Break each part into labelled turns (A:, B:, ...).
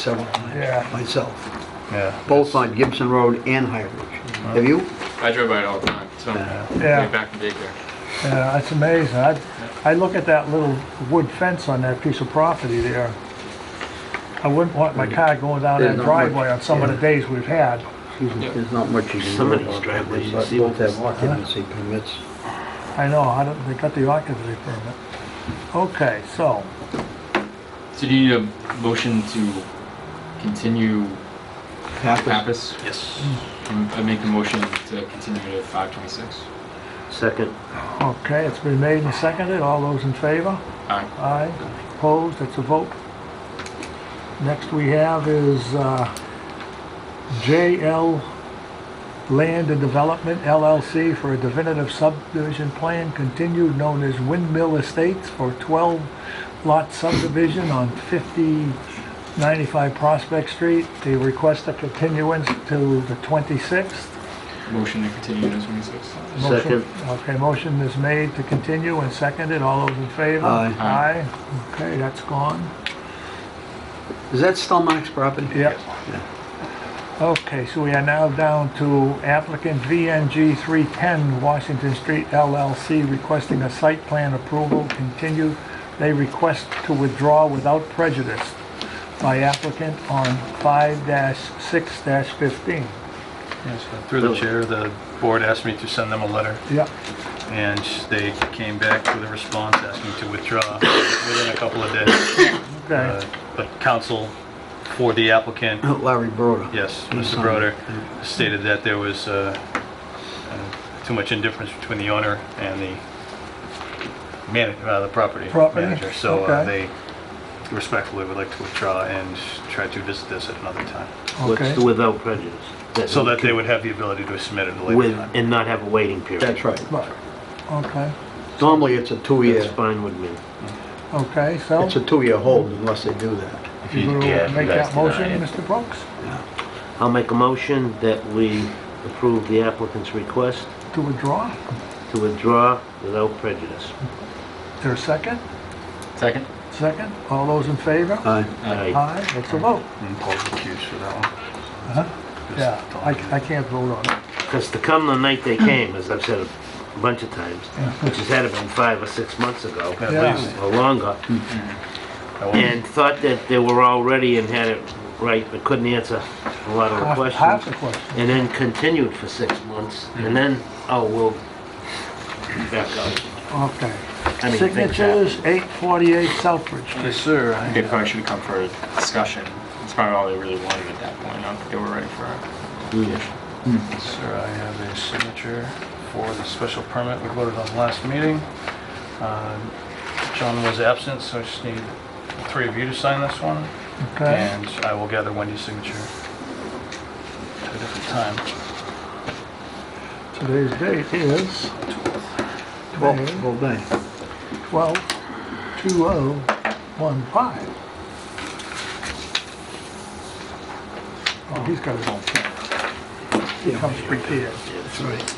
A: several times
B: Yeah.
A: myself,
B: Yeah.
A: both on Gibson Road and High Ridge. Have you?
C: I drive by it all the time, so
A: Yeah.
B: Yeah.
C: way back in daycare.
B: Yeah, Uh, it's amazing. I, I look at that little wood fence on that piece of property there. I wouldn't want my car going down
A: There's
B: that
A: Hmm. not much,
B: driveway on some of the
A: yeah.
B: days we've had.
A: Excuse me, There's not much you can do
D: Somebody's
A: about it.
D: driveway, you
A: But
D: see
A: both
D: what
A: have occupancy permits.
B: I know, I don't, they got the occupancy permit. Okay, so,
C: So do you need a motion to continue
A: Pappas?
C: Pappas?
D: Yes.
C: Can I make a motion to continue to five twenty-six.
D: Second.
B: okay, it's been made and seconded. All those in favor?
C: Aye.
B: Aye. Opposed? That's a vote. Next we have is uh, JL Land and Development LLC for a definitive subdivision plan continued known as Windmill Estates for 12 lot subdivision on 5095 Prospect Street. They request a continuance to the 26th.
C: Motion to continue to twenty-six.
B: Motion-
D: Second.
B: Okay, motion is made to continue and seconded. All those in favor?
A: Aye.
C: Aye.
B: Aye. Okay, that's gone.
A: Is that Stelmach's property?
B: Yep. Okay, so we are now down to applicant VNG 310 Washington Street LLC requesting a site plan approval continued. They request to withdraw without prejudice by applicant on 5-6-15.
E: Yes, uh, Through the chair, the board asked me to send them a letter,
B: Yep,
E: and they came back with a response asking to withdraw within a couple of days. Uh,
B: okay,
E: But counsel for the applicant,
A: Larry Broda.
E: yes,
A: He
E: Mr.
A: signed
E: Broder,
A: it.
E: stated that there was uh, uh, too much indifference between the owner and the manager, the property
B: Property,
E: manager. So uh,
B: okay.
E: they respectfully would like to withdraw and try to visit this at another time,
B: okay.
D: Let's do without prejudice.
E: so that they would have the ability to submit it at a later
D: With,
E: time.
D: and not have a waiting period.
A: That's right.
B: Right. Okay,
A: Normally, it's a
D: That's
A: two-year,
D: fine with me.
B: okay, so
A: it's a two-year hold unless they do that.
B: if you going
D: yeah,
B: to
D: if you
B: make
D: guys
B: that motion,
D: deny it.
B: Mr. Brooks,
D: I'll make a motion that we approve the applicant's request
B: to withdraw?
D: to withdraw without prejudice.
B: Is there a second?
C: Second?
B: Second? All those in favor?
A: Aye.
D: Aye.
B: Aye, that's a vote.
E: And Paul recused for that one. Uh-huh.
B: Yeah, I, I can't vote on it.
D: Because to come the night they came, as I've said a bunch of times, which has had to been five or six months ago,
E: At
B: Yeah.
E: least.
D: or longer,
E: I won't-
D: and thought that they were all ready and had it right, but couldn't answer a lot of the
B: Half- Half the
D: questions.
B: question.
D: And then continued for six months, and then, oh, we'll back out.
B: Okay.
D: I mean, things happen.
B: Signatures, 848 Southbridge Street.
E: Yes, sir. I-
C: They probably should have come for a discussion. That's probably all they really wanted at that point. I don't think they were ready for it.
E: Sir, I have a signature for the special permit we voted on last meeting. Uh, John was absent, so I just need the three of you to sign this one,
B: Okay,
E: and I will gather Wendy's signature at a different time.
B: today's date is
A: Well,
B: May oh
A: well, dang.
B: 12, 2015. Oh, he's got his own pen. He comes prepared.
A: That's right.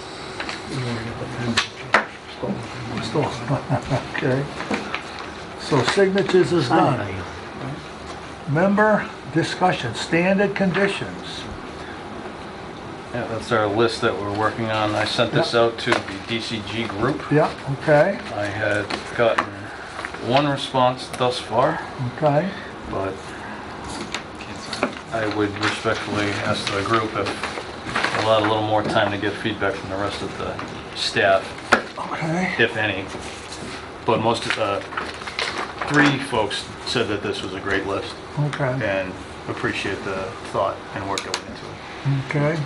B: Store. Okay. So signatures is done. Member discussion, standard conditions.
E: Yeah, that's our list that we're working on. I sent this out to the DCG group.
B: Yeah, okay,
E: I had gotten one response thus far,
B: okay.
E: but
C: Can't sign it.
E: I would respectfully ask the group if allowed a little more time to get feedback from the rest of the staff,
B: Okay.
E: if any. But most of the, three folks said that this was a great list
B: Okay,
E: and appreciate the thought and work that went into it.
B: okay.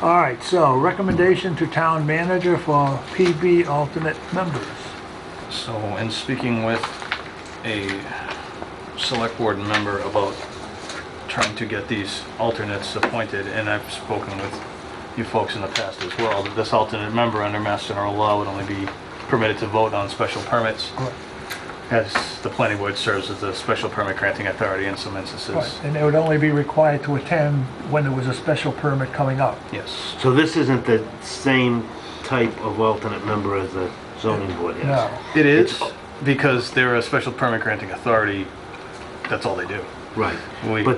B: All right, so recommendation to town manager for PB alternate members.
E: So in speaking with a select board member about trying to get these alternates appointed, and I've spoken with you folks in the past as well, that this alternate member under Mass General Law would only be permitted to vote on special permits. As the planning board serves as the special permit granting authority in some instances.
B: And they would only be required to attend when there was a special permit coming up.
E: Yes.
D: So this isn't the same type of alternate member as the zoning board has?
B: No,
E: It is, because they're a special permit granting authority, that's all they do.
D: Right.
E: We-
D: But